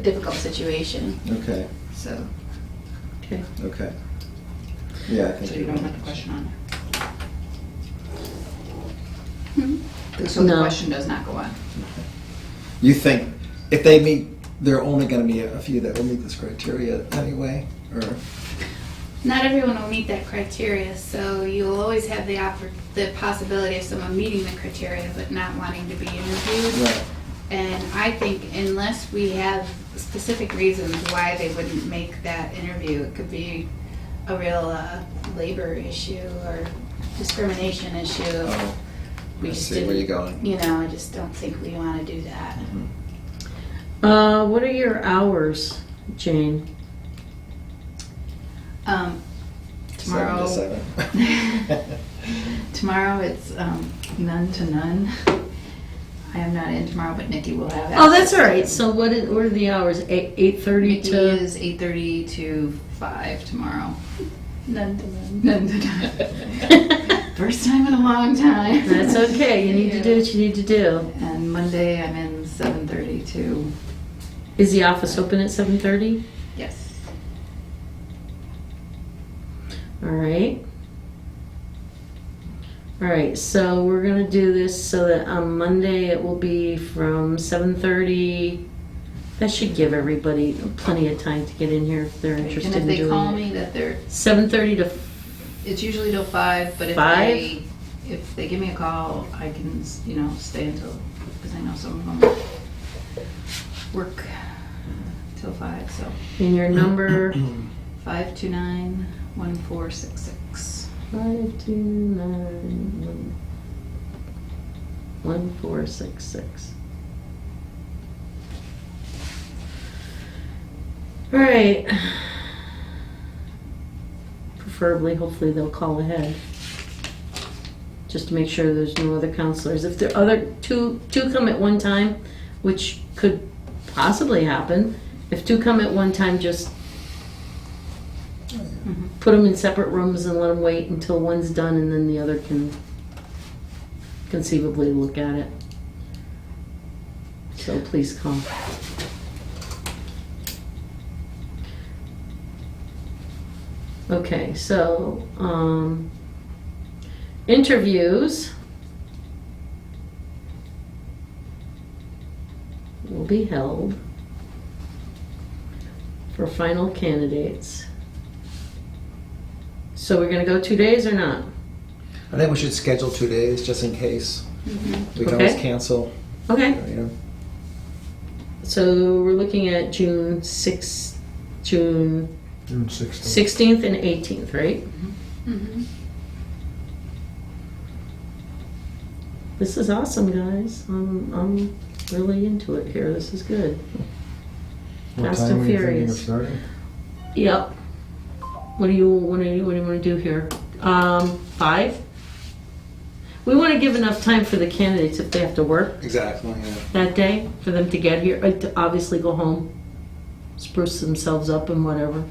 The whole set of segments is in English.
difficult situation, Okay, so. Okay. okay. Yeah, I think. So you don't have a question on it? So the No. question does not go on. You think if they meet, there are only going to be a few that will meet this criteria anyway, or Not everyone will meet that criteria, so you'll always have the oppor- the possibility of someone meeting the criteria but not wanting to be interviewed. right? And I think unless we have specific reasons why they wouldn't make that interview, it could be a real uh, labor issue or discrimination issue. Oh, We I just see where didn't- you're going. You know, I just don't think we want to do that. Uh, what are your hours, Jane? Um, Seven to Tomorrow, seven. tomorrow it's um, none to none. I am not in tomorrow, but Nikki will have. Oh, access that's all to right. it. So what is, what are the hours? Eight eight thirty Nikki to. is eight thirty to five tomorrow. None to none. None to none. First time in a long time. That's okay. You need to do what you need to do. And Monday I'm in seven thirty to, Is the office open at seven thirty? yes. All right. All right. So we're gonna do this so that on Monday it will be from seven thirty. That should give everybody plenty of time to get in here if they're And interested if in they call doing it. me that they're, Seven thirty to it's usually till five, but if Five? they, if they give me a call, I can, you know, stay until, because I know some of them work till five, so. in your number. Five two nine one four six six. Five two nine one one four six six. All right. Preferably, hopefully they'll call ahead. Just to make sure there's no other counselors. If the other two, two come at one time, which could possibly happen, if two come at one time, just put them in separate rooms and let them wait until one's done and then the other can conceivably look at it. So please come. Okay, so, um, interviews will be held for final candidates. So we're gonna go two days or not? I think we should schedule two days just in case. Mm-hmm. We can always Okay. cancel, you Okay. know. So we're looking at June sixth, June June sixteenth. sixteenth and eighteenth, right? Mhm. This is awesome, guys. I'm I'm really into it here. This is good. What Fast time and are you thinking of Furious. starting? Yep. What do you what do you what do you want to do here? Um, five. We want to give enough time for the candidates if they have to work Exactly, yeah. that day for them to get here, uh, to obviously go home, spruce themselves up and whatever.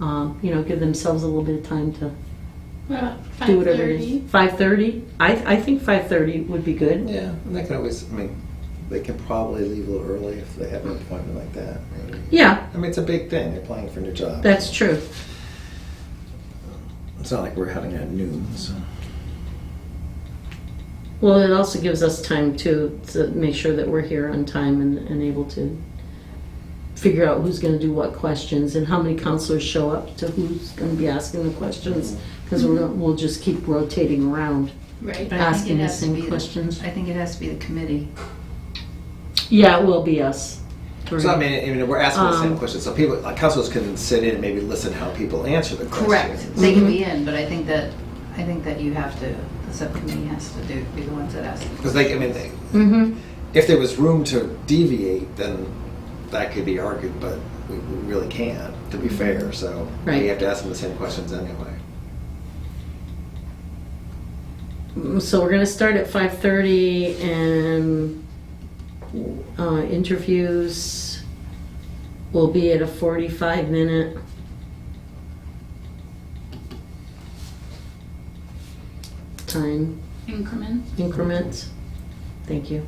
Um, you know, give themselves a little bit of time to What about do whatever it 5:30? is. Five thirty. I I think five thirty would be good. Yeah, and they can always, I mean, they can probably leave a little early if they have an appointment like that. maybe. Yeah, I mean, it's a big thing, they're applying for a new job. that's true. It's not like we're having it at noon, so. Well, it also gives us time to to make sure that we're here on time and, and able to figure out who's going to do what questions and how many counselors show up to who's going to be asking the questions because we're gonna- we'll just keep rotating around. Right. But I think Asking it the has to same be the- questions. I think it has to be the committee. Yeah, it will be us. So I mean, I mean, we're asking the same Um, question, so people, like, counselors can sit in and maybe listen how people answer the Correct. questions. They can be Mm-hmm. in, but I think that, I think that you have to, the subcommittee has to do, be the ones that ask. Because they, I mean, they, Mm-hmm. if there was room to deviate, then that could be argued, but we we really can't, to be fair, so. Right. We have to ask them the same questions anyway. Mm, So we're gonna start at five thirty and uh, interviews will be at a forty-five minute. Time Increment. increment. Thank you.